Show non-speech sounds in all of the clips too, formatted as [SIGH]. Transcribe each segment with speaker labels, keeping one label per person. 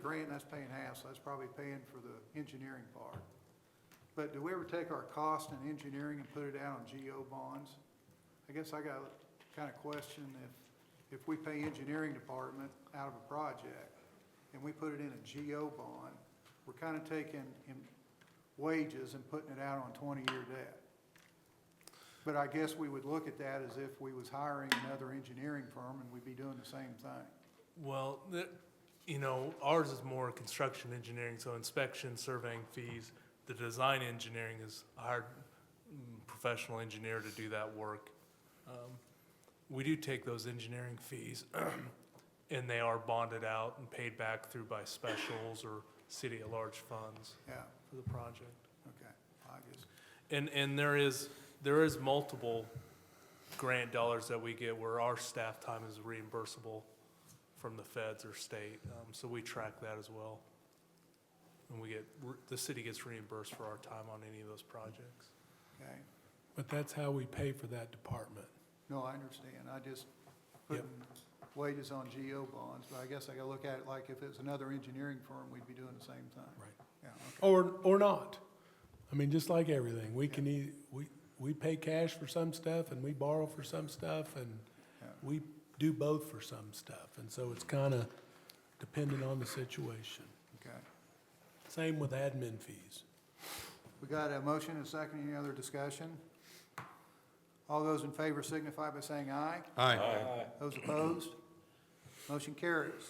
Speaker 1: grant, that's paying half, so that's probably paying for the engineering part. But do we ever take our cost in engineering and put it out on GO bonds? I guess I got a kind of question if, if we pay engineering department out of a project and we put it in a GO bond, we're kind of taking in wages and putting it out on twenty-year debt. But I guess we would look at that as if we was hiring another engineering firm and we'd be doing the same thing.
Speaker 2: Well, the, you know, ours is more construction engineering, so inspection, surveying fees. The design engineering is hired mm, professional engineer to do that work. Um, We do take those engineering fees, [CLEARS THROAT] and they are bonded out and paid back through by specials or city at large funds
Speaker 1: Yeah,
Speaker 2: for the project.
Speaker 1: okay, I just,
Speaker 2: And, and there is, there is multiple grant dollars that we get where our staff time is reimbursable from the feds or state, um, so we track that as well. And we get, the city gets reimbursed for our time on any of those projects.
Speaker 1: okay.
Speaker 3: But that's how we pay for that department.
Speaker 1: No, I understand, I just
Speaker 3: Yep.
Speaker 1: putting wages on GO bonds, but I guess I gotta look at it like if it's another engineering firm, we'd be doing the same thing.
Speaker 3: Right.
Speaker 1: Yeah, okay,
Speaker 3: Or, or not. I mean, just like everything, we can e, we, we pay cash for some stuff and we borrow for some stuff and
Speaker 1: Yeah.
Speaker 3: we do both for some stuff. And so it's kind of dependent on the situation.
Speaker 1: okay.
Speaker 3: Same with admin fees.
Speaker 1: We got a motion and a second, any other discussion? All those in favor signify by saying aye. Aye. Those opposed? Motion carries.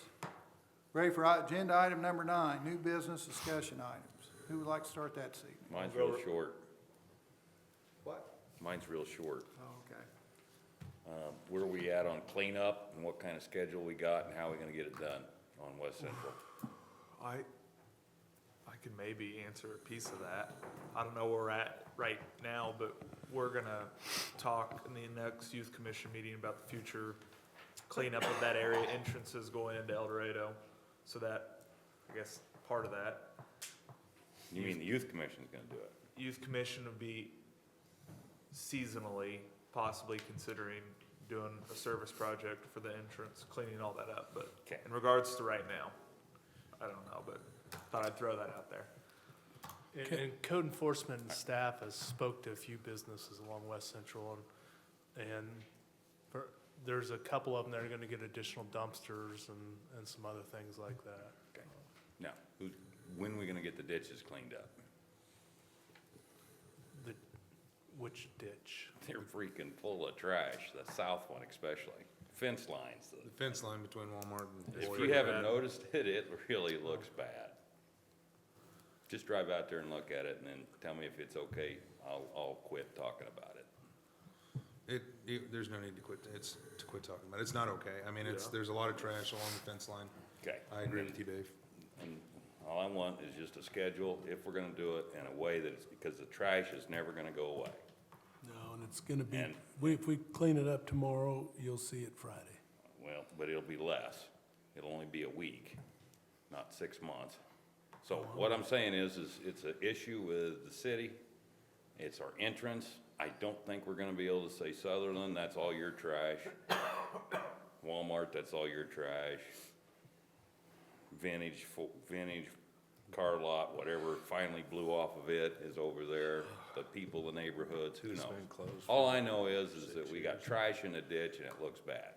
Speaker 1: Ready for agenda item number nine, new business discussion items. Who would like to start that this evening?
Speaker 4: Mine's real short.
Speaker 1: What?
Speaker 4: Mine's real short.
Speaker 1: Oh, okay.
Speaker 4: Um, Where we at on cleanup and what kind of schedule we got and how we gonna get it done on West Central?
Speaker 5: I, I could maybe answer a piece of that. I don't know where we're at right now, but we're gonna talk in the next youth commission meeting about the future cleanup of that area, entrances going into El Dorado. So that, I guess, part of that.
Speaker 4: You mean the youth commission's gonna do it?
Speaker 5: Youth commission would be seasonally possibly considering doing a service project for the entrance, cleaning all that up, but
Speaker 4: Okay.
Speaker 5: in regards to right now, I don't know, but thought I'd throw that out there.
Speaker 2: And,
Speaker 3: Okay.
Speaker 2: and code enforcement and staff has spoke to a few businesses along West Central and, and for- there's a couple of them that are gonna get additional dumpsters and, and some other things like that.
Speaker 4: No. Who, when we gonna get the ditches cleaned up? [LAUGHS]
Speaker 2: The, which ditch?
Speaker 4: They're freaking full of trash, the south one especially. Fence lines. the-
Speaker 6: The fence line between Walmart and
Speaker 4: If
Speaker 6: Boyd.
Speaker 4: you haven't noticed [LAUGHS] it, it really looks bad. Just drive out there and look at it and then tell me if it's okay. I'll, I'll quit talking about it.
Speaker 6: It, it- there's no need to quit, it's, to quit talking about it. It's not okay. I mean, it's,
Speaker 5: Yeah.
Speaker 6: there's a lot of trash along the fence line.
Speaker 4: Okay.
Speaker 6: I agree with you, Dave.
Speaker 4: And all I want is just a schedule, if we're gonna do it, in a way that it's, because the trash is never gonna go away.
Speaker 3: No, and it's gonna be,
Speaker 4: And-
Speaker 3: we, if we clean it up tomorrow, you'll see it Friday.
Speaker 4: Well, but it'll be less. It'll only be a week, not six months. So what I'm saying is, is it's an issue with the city. It's our entrance. I don't think we're gonna be able to say Sutherland, that's all your trash. Walmart, that's all your trash. Vintage, fo- vintage car lot, whatever finally blew off of it is over there. The people, the neighborhoods, who knows? All I know is, is that we got trash in the ditch and it looks bad.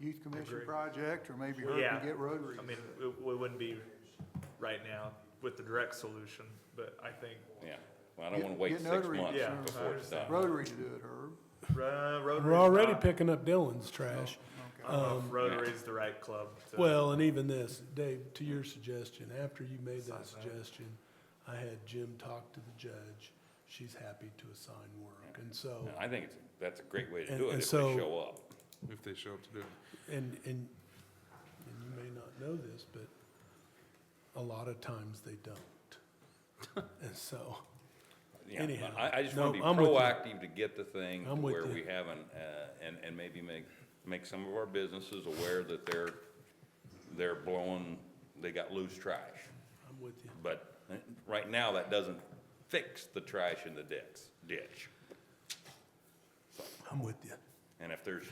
Speaker 1: Youth Commission
Speaker 5: Agree.
Speaker 1: project, or maybe
Speaker 5: Well,
Speaker 1: her
Speaker 5: yeah.
Speaker 1: to get Rotary.
Speaker 5: I mean, it, we wouldn't be right now with the direct solution, but I think,
Speaker 4: Yeah, well, I don't wanna
Speaker 1: Get-
Speaker 4: wait
Speaker 1: get
Speaker 4: six
Speaker 1: notary,
Speaker 4: months
Speaker 5: yeah,
Speaker 4: before it's done.
Speaker 1: Rotary to do it, Herb.
Speaker 5: uh, Rotary's
Speaker 3: We're already
Speaker 5: not-
Speaker 3: picking up Dylan's trash.
Speaker 5: I don't know if Rotary's the right club to.
Speaker 3: Well, and even this, Dave, to your suggestion, after you made that suggestion, I had Jim talk to the judge. She's happy to assign work. And so,
Speaker 4: And I think it's, that's a great way to
Speaker 3: And-
Speaker 4: do it,
Speaker 3: and
Speaker 4: if they
Speaker 3: so-
Speaker 4: show up.
Speaker 6: If they show up to do it.
Speaker 3: and, and, and you may not know this, but a lot of times they don't. And so,
Speaker 4: Yeah,
Speaker 3: Anyhow,
Speaker 4: I, I just
Speaker 3: no,
Speaker 4: wanna be
Speaker 3: I'm with you.
Speaker 4: proactive to get the thing to
Speaker 3: I'm with
Speaker 4: where
Speaker 3: you.
Speaker 4: we haven't, uh, and, and maybe make, make some of our businesses aware that they're, they're blowing, they got loose trash.
Speaker 3: I'm with you.
Speaker 4: But uh, right now, that doesn't fix the trash in the ditch, ditch.
Speaker 3: I'm with you.
Speaker 4: And if there's